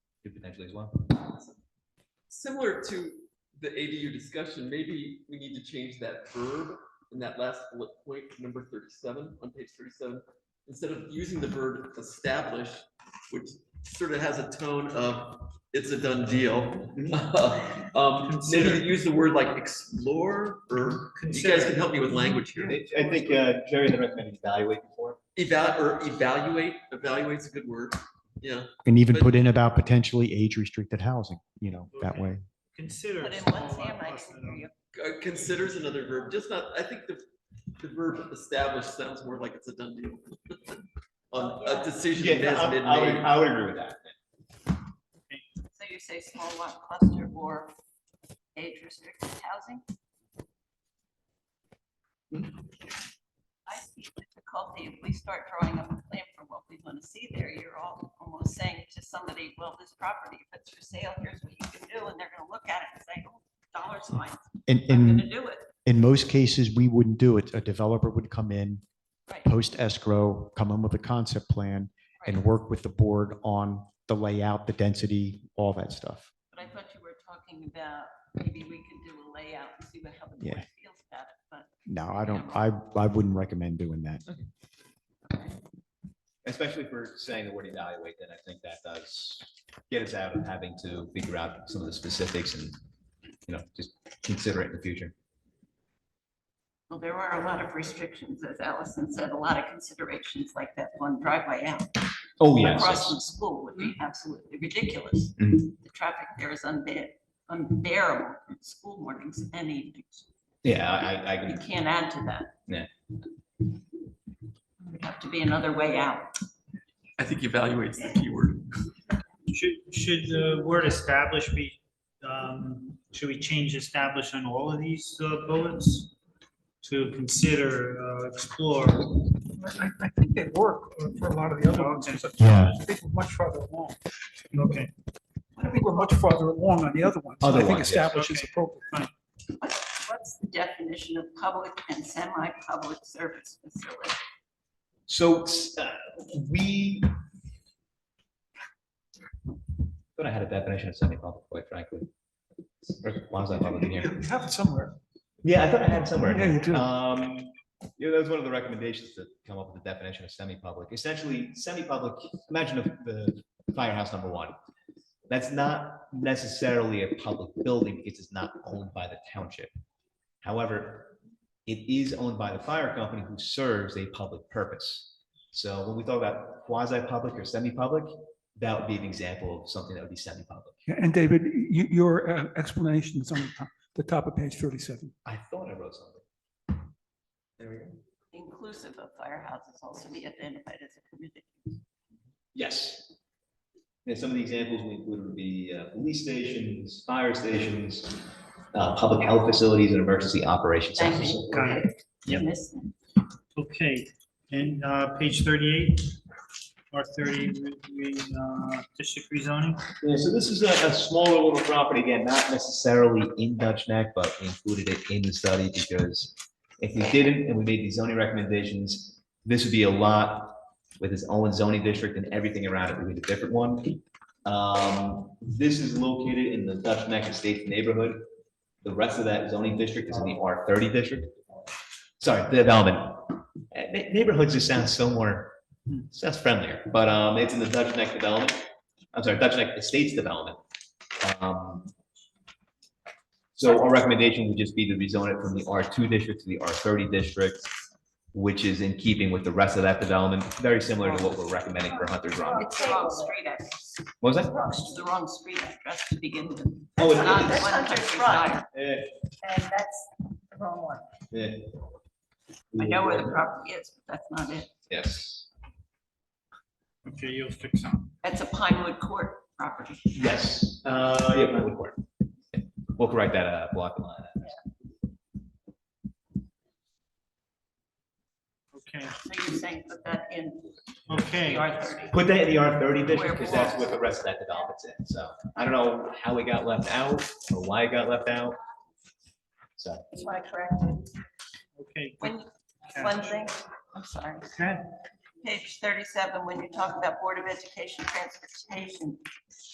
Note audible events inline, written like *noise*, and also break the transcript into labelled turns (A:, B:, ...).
A: potentially as well.
B: Similar to the ADU discussion, maybe we need to change that verb in that last bullet point, number thirty-seven, on page thirty-seven. Instead of using the verb establish, which sort of has a tone of it's a done deal. *laughs* Um, maybe
C: Consider.
B: use the word like explore or, you guys can help me with language here.
D: I think uh, Jerry had recommended evaluate before.
B: Eval, or evaluate, evaluate's a good word, yeah.
E: And even
B: But-
E: put in about potentially age restricted housing, you know, that
C: Okay.
E: way.
C: Consider.
F: But in
C: small
F: one Sam,
C: lot
F: I
C: plus
F: can
C: than
F: hear you.
B: Uh, Considers another verb, just not, I think the, the verb establish sounds more like it's a done deal. *laughs* On a decision
D: Yeah,
B: that has
D: I
B: been
D: I would,
B: made,
D: I would agree with that.
F: So you say small lot cluster or age restricted housing? I see the difficulty, if we start drawing up a plan for what we want to see there, you're all almost saying to somebody, well, this property, if it's for sale, here's what you can do, and they're gonna look at it and say, oh, dollar signs,
E: And
F: I'm gonna
E: in,
F: do it.
E: in most cases, we wouldn't do it. A developer would come in,
F: Right,
E: post escrow, come in with a concept plan and
F: right.
E: work with the board on the layout, the density, all that stuff.
F: But I thought you were talking about, maybe we could do a layout and see what, how the board
E: Yeah.
F: feels about it, but.
E: No, I don't, I, I wouldn't recommend doing that.
D: Especially if we're saying the word evaluate, then I think that does get us out of having to figure out some of the specifics and, you know, just consider it in the future.
F: Well, there were a lot of restrictions, as Allison said, a lot of considerations like that one driveway out.
D: Oh,
F: Across from school would be absolutely ridiculous.
D: Mhm.
F: The traffic there is unbear, unbearable from school mornings and evenings.
D: Yeah, I- I, I
F: You
D: can,
F: can't add to that.
D: Yeah.
F: There'd have to be another way out.
B: I think evaluate's the key word.
C: Should, should the word establish be, um, should we change establish on all of these uh, bullets? To consider, uh, explore.
G: I, I think they work for a lot of the other ones.
E: Yeah.
G: I think we're much farther along.
C: Okay.
G: I think we're much farther along on the other ones.
D: Other
G: I think
D: ones, yes.
G: establishes
C: Okay.
G: appropriate.
F: What's what's the definition of public and semi-public service facility?
D: so uh, we. Thought I had a definition of semi-public, quite frankly. Or quasi-public in here.
G: You have it somewhere.
D: Yeah, I thought I had it somewhere. in
G: Yeah, you
D: here.
G: do.
D: Um, yeah, that was one of the recommendations to come up with the definition of semi-public. Essentially, semi-public, imagine if the firehouse number one. That's not necessarily a public building because it's not owned by the township. However, it is owned by the fire company who serves a public purpose. So when we talk about quasi-public or semi-public, that would be an example of something that would be semi-public.
G: Yeah, And David, you, your uh, explanation is on the top, the top of page thirty-seven.
D: I thought I wrote something. There we go.
F: Inclusive of firehouses also be identified as a community.
D: Yes. And some of the examples we included would be uh, police stations, fire stations, uh, public health facilities, and emergency operations
F: Thank
D: centers.
F: you.
C: Got
D: Yep.
F: Missed it.
C: Okay, and, uh, page thirty-eight, or thirty, we- we, uh, district rezoning?
D: Yeah, so this is a, a smaller little property, again, not necessarily in Dutch Neck, but we included it in the study because if we didn't and we made these zoning recommendations, this would be a lot with its own zoning district and everything around it would be a different one. Um, this is located in the Dutch Neck Estates neighborhood. The rest of that zoning district is in the R thirty district. Sorry, the development. Eh, ne- Neighborhoods just sound so more, sounds friendlier, but, um, it's in the Dutch Neck development. I'm sorry, Dutch Neck Estates Development. Um, So our recommendation would just be to rezone it from the R2 district to the R30 district, which is in keeping with the rest of that development, very similar to what we're recommending for Hunter's Run.
F: It's the wrong street address.
D: What was that?
F: It's the wrong street address to begin with.
D: Oh,
F: It's not
D: it-
F: the one
H: Hunter's
F: Hunter's
H: Run.
F: Run.
D: eh,
H: And that's the wrong one.
D: eh.
F: I know where the property is, but that's not it.
D: Yes,
C: Okay, you'll fix them.
F: That's a Pinewood Court property.
D: yes. Uh, yeah, that would work. We'll correct that, uh, block and line.
C: Okay,
F: So you're saying put that in
C: okay.
F: the R thirty.
D: Put that in the R thirty
F: Where it
D: district, because that's
F: belongs.
D: what the rest of that development's in, so I don't know how it got left out, or why it got left out. So,
H: That's why I corrected.
C: Okay.
F: When,
C: good
F: one
C: catch.
F: thing, I'm sorry.
C: Okay.
F: Page thirty-seven, when you talk about Board of Education transportation,